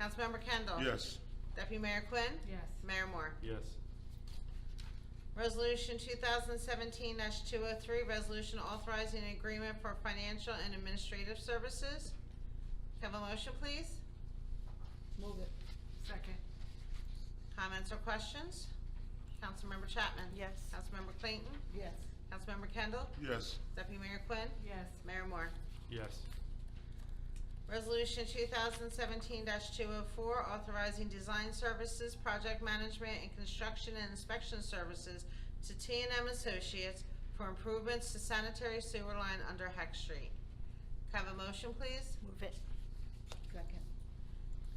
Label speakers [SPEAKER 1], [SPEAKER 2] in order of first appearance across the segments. [SPEAKER 1] Councilmember Kendall?
[SPEAKER 2] Yes.
[SPEAKER 1] Deputy Mayor Quinn?
[SPEAKER 3] Yes.
[SPEAKER 1] Mayor Moore?
[SPEAKER 4] Yes.
[SPEAKER 1] Resolution 2017-203, resolution authorizing an agreement for financial and administrative services. Can I Have a motion, please?
[SPEAKER 3] Move it. Second.
[SPEAKER 1] Comments or questions? Councilmember Chapman?
[SPEAKER 3] Yes.
[SPEAKER 1] Councilmember Clayton?
[SPEAKER 3] Yes.
[SPEAKER 1] Councilmember Kendall?
[SPEAKER 2] Yes.
[SPEAKER 1] Deputy Mayor Quinn?
[SPEAKER 3] Yes.
[SPEAKER 1] Mayor Moore?
[SPEAKER 4] Yes.
[SPEAKER 1] Resolution 2017-204, authorizing design services, project management, and construction and inspection services to t and m Associates for improvements to sanitary sewer line under Heck Street. Can I have a motion, please?
[SPEAKER 3] Move it. Second.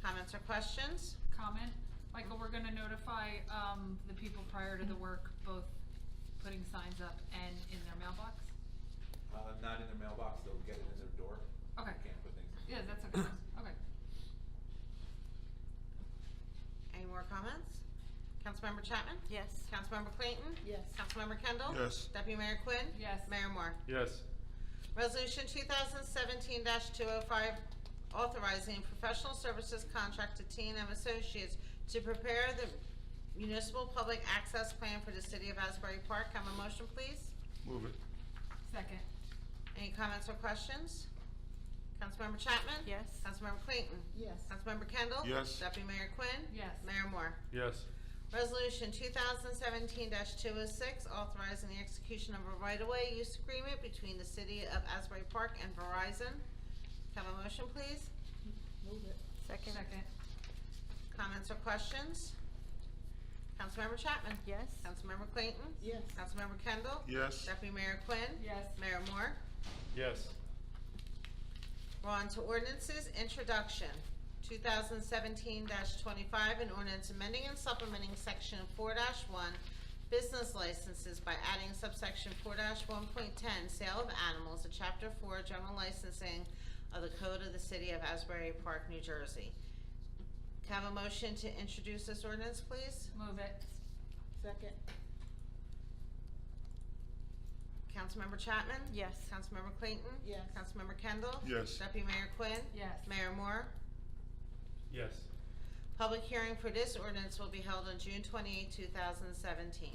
[SPEAKER 1] Comments or questions?
[SPEAKER 5] comment. Michael, we're gonna notify, um, the people prior to the work, both putting signs up and in their mailbox?
[SPEAKER 6] Uh, not in their mailbox, they'll get it in their door.
[SPEAKER 5] Okay.
[SPEAKER 6] Can't put things. in.
[SPEAKER 5] Yeah, that's okay, okay.
[SPEAKER 1] Any more comments? Councilmember Chapman?
[SPEAKER 3] Yes.
[SPEAKER 1] Councilmember Clayton?
[SPEAKER 3] Yes.
[SPEAKER 1] Councilmember Kendall?
[SPEAKER 2] Yes.
[SPEAKER 1] Deputy Mayor Quinn?
[SPEAKER 5] Yes.
[SPEAKER 1] Mayor Moore?
[SPEAKER 4] Yes.
[SPEAKER 1] Resolution 2017-205, authorizing professional services contract to t and m Associates to prepare the municipal public access plan for the city of Asbury Park. Have a motion, please?
[SPEAKER 2] Move it.
[SPEAKER 5] Second,
[SPEAKER 1] Any comments or questions? Councilmember Chapman?
[SPEAKER 3] Yes.
[SPEAKER 1] Councilmember Clayton?
[SPEAKER 3] Yes.
[SPEAKER 1] Councilmember Kendall?
[SPEAKER 2] Yes.
[SPEAKER 1] Deputy Mayor Quinn?
[SPEAKER 5] yes.
[SPEAKER 1] Mayor Moore?
[SPEAKER 4] Yes.
[SPEAKER 1] Resolution 2017-206, authorizing the execution of a right-of-way use agreement between the city of Asbury Park and Verizon. Can I Have a motion, please?
[SPEAKER 3] Move it. Second.
[SPEAKER 5] Second,
[SPEAKER 1] Comments or questions? Councilmember Chapman?
[SPEAKER 3] Yes.
[SPEAKER 1] Councilmember Clayton?
[SPEAKER 3] Yes.
[SPEAKER 1] Councilmember Kendall?
[SPEAKER 2] Yes.
[SPEAKER 1] Deputy Mayor Quinn?
[SPEAKER 5] yes.
[SPEAKER 1] Mayor Moore?
[SPEAKER 4] Yes.
[SPEAKER 1] We're on to ordinances, introduction, 2017-25, an ordinance amending and supplementing section 4-1, business licenses by adding subsection 4-1.10, sale of animals, to chapter 4, general licensing of the code of the city of Asbury Park, New Jersey. Can I have a motion to introduce this ordinance, please?
[SPEAKER 5] Move it,
[SPEAKER 3] Second.
[SPEAKER 1] Councilmember Chapman?
[SPEAKER 3] Yes.
[SPEAKER 1] Councilmember Clayton?
[SPEAKER 3] Yes.
[SPEAKER 1] Councilmember Kendall?
[SPEAKER 2] Yes.
[SPEAKER 1] Deputy Mayor Quinn?
[SPEAKER 5] yes.
[SPEAKER 1] Mayor Moore?
[SPEAKER 4] Yes.
[SPEAKER 1] Public hearing for this ordinance will be held on June 28, 2017.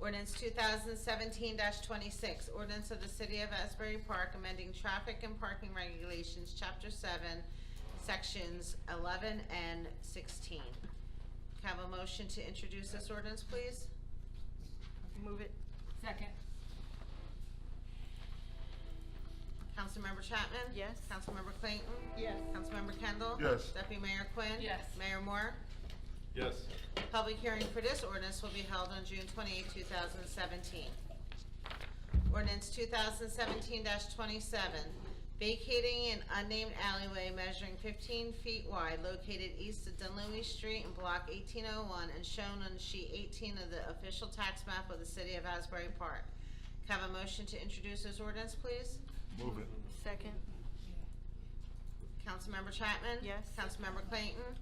[SPEAKER 1] Ordinance 2017-26, ordinance of the City of Asbury Park amending traffic and parking regulations, Chapter 7, Sections 11 and 16. Can I have a motion to introduce this ordinance, please?
[SPEAKER 3] Move it.
[SPEAKER 5] Second,
[SPEAKER 1] Councilmember Chapman?
[SPEAKER 3] Yes.
[SPEAKER 1] Councilmember Clayton?
[SPEAKER 3] Yes.
[SPEAKER 1] Councilmember Kendall?
[SPEAKER 2] Yes.
[SPEAKER 1] Deputy Mayor Quinn?
[SPEAKER 5] Yes.
[SPEAKER 1] Mayor Moore?
[SPEAKER 4] Yes.
[SPEAKER 1] Public hearing for this ordinance will be held on June 28, 2017. Ordinance 2017-27, vacating an unnamed alleyway measuring 15 feet wide located east of Dunleavy Street in Block 1801 and shown on sheet 18 of the official tax map of the city of Asbury Park. Can I have a motion to introduce this ordinance, please?
[SPEAKER 2] Move it.
[SPEAKER 3] Second.
[SPEAKER 1] Councilmember Chapman?
[SPEAKER 3] Yes.
[SPEAKER 1] Councilmember Clayton?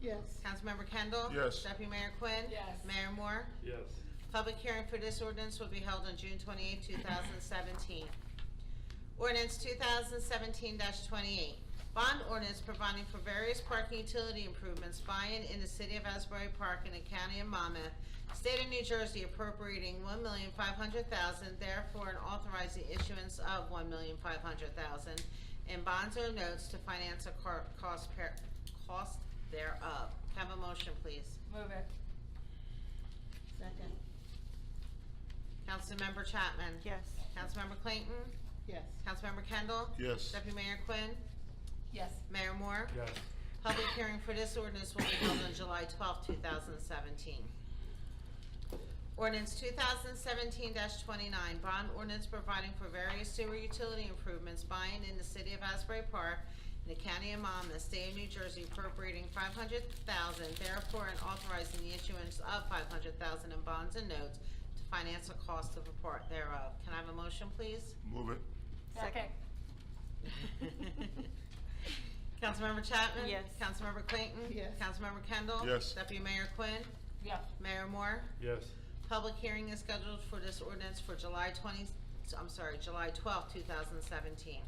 [SPEAKER 3] Yes.
[SPEAKER 1] Councilmember Kendall?
[SPEAKER 2] Yes.
[SPEAKER 1] Deputy Mayor Quinn?
[SPEAKER 5] Yes.
[SPEAKER 1] Mayor Moore?
[SPEAKER 4] Yes.
[SPEAKER 1] Public hearing for this ordinance will be held on June 28, 2017. Ordinance 2017-28, bond ordinance providing for various parking utility improvements by and in the city of Asbury Park and the county of Monmouth, state of New Jersey appropriating $1,500,000, therefore and authorizing issuance of $1,500,000 in bonds or notes to finance a car- cost par- cost thereof. Have a motion, please.
[SPEAKER 5] move it,
[SPEAKER 3] Second.
[SPEAKER 1] Councilmember Chapman?
[SPEAKER 3] Yes.
[SPEAKER 1] Councilmember Clayton?
[SPEAKER 3] Yes.
[SPEAKER 1] Councilmember Kendall?
[SPEAKER 2] Yes.
[SPEAKER 1] Deputy Mayor Quinn?
[SPEAKER 5] yes.
[SPEAKER 1] Mayor Moore?
[SPEAKER 4] Yes.
[SPEAKER 1] Public hearing for this ordinance will be held on July 12, 2017. Ordinance 2017-29, bond ordinance providing for various sewer utility improvements by and in the city of Asbury Park in the county of Monmouth, state of New Jersey appropriating 500000 therefore and authorizing the issuance of 500000 in bonds and notes to finance the cost of a part thereof. Can I have a motion, please?
[SPEAKER 2] Move it.
[SPEAKER 3] Second.
[SPEAKER 1] Councilmember Chapman?
[SPEAKER 3] Yes.
[SPEAKER 1] Councilmember Clayton?
[SPEAKER 3] Yes.
[SPEAKER 1] Councilmember Kendall?
[SPEAKER 2] Yes.
[SPEAKER 1] Deputy Mayor Quinn?
[SPEAKER 5] Yes,
[SPEAKER 1] Mayor Moore?
[SPEAKER 4] Yes.
[SPEAKER 1] Public hearing is scheduled for this ordinance for July 20, I'm sorry, July 12, 2017.